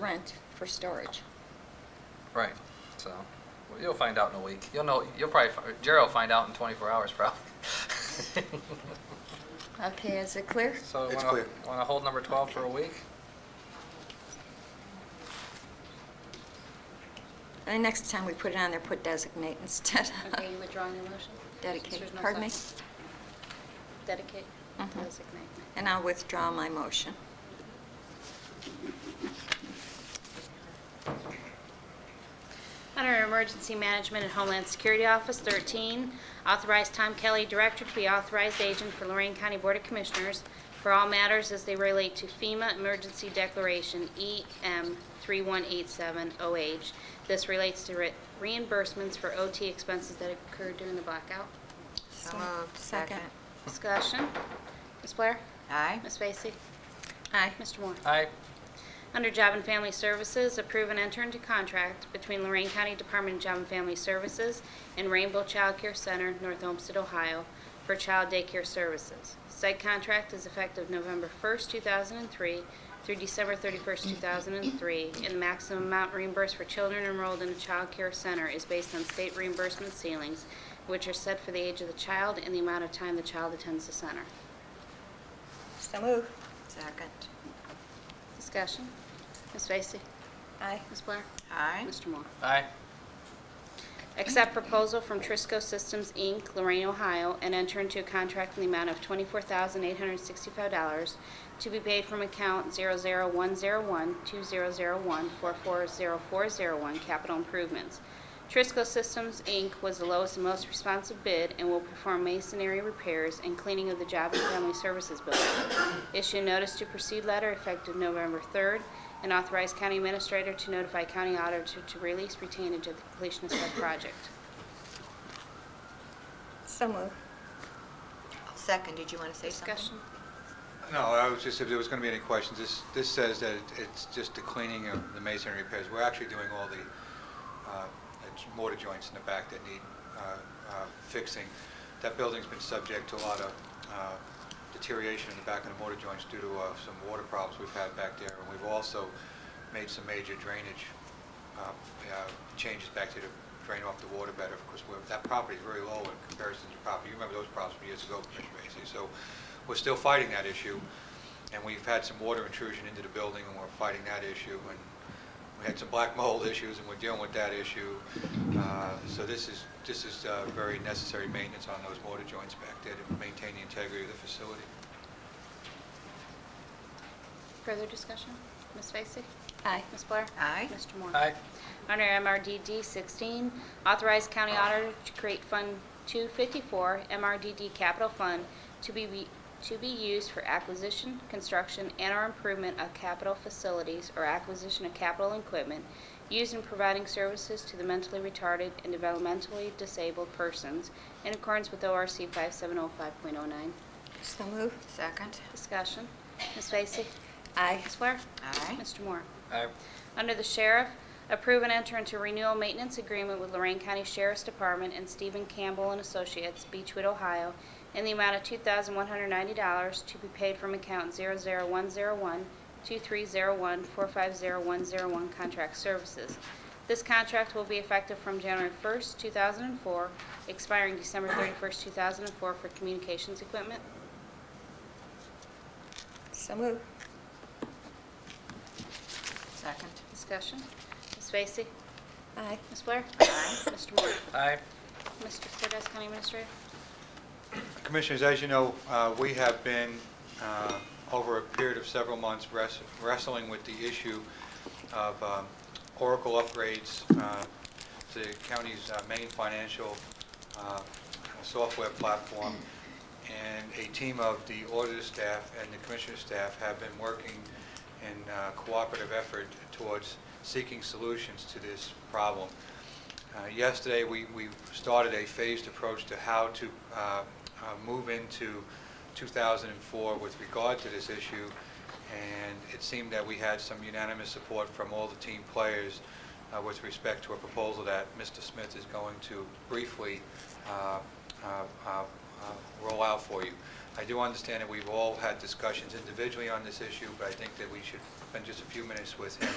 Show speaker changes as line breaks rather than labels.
rent for storage.
Right, so, well, you'll find out in a week. You'll know, you'll probably, fi- Jerry will find out in 24 hours probably.
Okay, is it clear?
So,
It's
want
clear.
to, want to hold number 12 for a week?
And next time we put it on there, put designate instead of
Okay, you withdrawing your motion?
dedicate.
There's no
Pardon me?
second. Dedicate,
Mhm.
designate.
And I'll withdraw my motion.
Under Emergency Management and Homeland Security Office, 13, authorize Tom Kelly, Director, to be authorized agent for Lorraine County Board of Commissioners for all matters as they relate to FEMA Emergency Declaration E EM 3187OH. This relates to re- reimbursements for OT expenses that occurred during the blackout.
So moved.
Second.
Discussion. Ms. Blair?
Aye.
Ms. Vacy?
Aye.
Mr. Moore?
Aye,
Under Job and Family Services, approve and enter into contract between Lorraine County Department of Job and Family Services and Rainbow Child Care Center, North Olmsted, Ohio, for child daycare services. Said contract is effective November 1st, 2003 through December 31st, 2003, and the maximum amount reimbursed for children enrolled in a child care center is based on state reimbursement ceilings, which are set for the age of the child and the amount of time the child attends the center.
So move.
Second.
Discussion? Ms. Vacy?
Aye.
Ms. Blair?
Aye.
Mr. Moore?
aye,
Accept proposal from Trisco Systems, Inc., Lorraine, Ohio, and enter into a contract in the amount of $24,865 to be paid from account 00101-2001-440401 Capital Improvements. Trisco Systems, Inc. was the lowest and most responsive bid and will perform masonry repairs and cleaning of the Job and Family Services building. Issue notice to proceed letter effective November 3rd and authorize county administrator to notify county auditor to release retainage at the completion of said project.
So move.
Second, did you want to say something?
Discussion?
No, I was just, if there was going to be any questions, this, this says that it- it's just the cleaning of the masonry repairs. We're actually doing all the uh, the j- mortar joints in the back that need uh, uh, fixing. That building's been subject to a lot of uh, deterioration in the back of the mortar joints due to uh, some water problems we've had back there. And we've also made some major drainage uh, uh, changes back to the- drain off the water better. Of course, we're- that property is very low in comparison to property. You remember those problems from years ago, Commissioner Vacy. So we're still fighting that issue. And we've had some water intrusion into the building, and we're fighting that issue. And we had some black mold issues, and we're dealing with that issue. Uh, So this is, this is uh, very necessary maintenance on those mortar joints back there to maintain the integrity of the facility.
Further discussion? Ms. Vacy?
Aye.
Ms. Blair?
Aye.
Mr. Moore?
aye,
Under MRDD 16, authorize county auditor to create Fund 254, MRDD Capital Fund, to be, to be used for acquisition, construction, and/or improvement of capital facilities or acquisition of capital equipment used in providing services to the mentally retarded and developmentally disabled persons in accordance with ORC 5705.09.
So move.
Second.
Discussion. Ms. Vacy?
Aye.
Ms. Blair?
Aye.
Mr. Moore?
aye,
Under the Sheriff, approve and enter into renewal maintenance agreement with Lorraine County Sheriff's Department and Stephen Campbell and Associates, Beechwood, Ohio, in the amount of $2,190 to be paid from account 00101-2301-450101 Contract Services. This contract will be effective from January 1st, 2004, expiring December 31st, 2004 for communications equipment.
So move.
Second.
Discussion. Ms. Vacy?
Aye.
Ms. Blair?
Aye.
Mr. Moore?
aye,
Mr. Cortez, County Administrator?
Commissioners, as you know, uh, we have been, uh, over a period of several months, wrest- wrestling with the issue of um, Oracle upgrades uh, to the county's uh, main financial uh, software platform. And a team of the auditor staff and the commissioner staff have been working in uh, cooperative effort towards seeking solutions to this problem. Uh, Yesterday, we we started a phased approach to how to uh, uh, move into 2004 with regard to this issue, and it seemed that we had some unanimous support from all the team players uh, with respect to a proposal that Mr. Smith is going to briefly uh, uh, uh, uh, roll out for you. I do understand that we've all had discussions individually on this issue, but I think that we should spend just a few minutes with him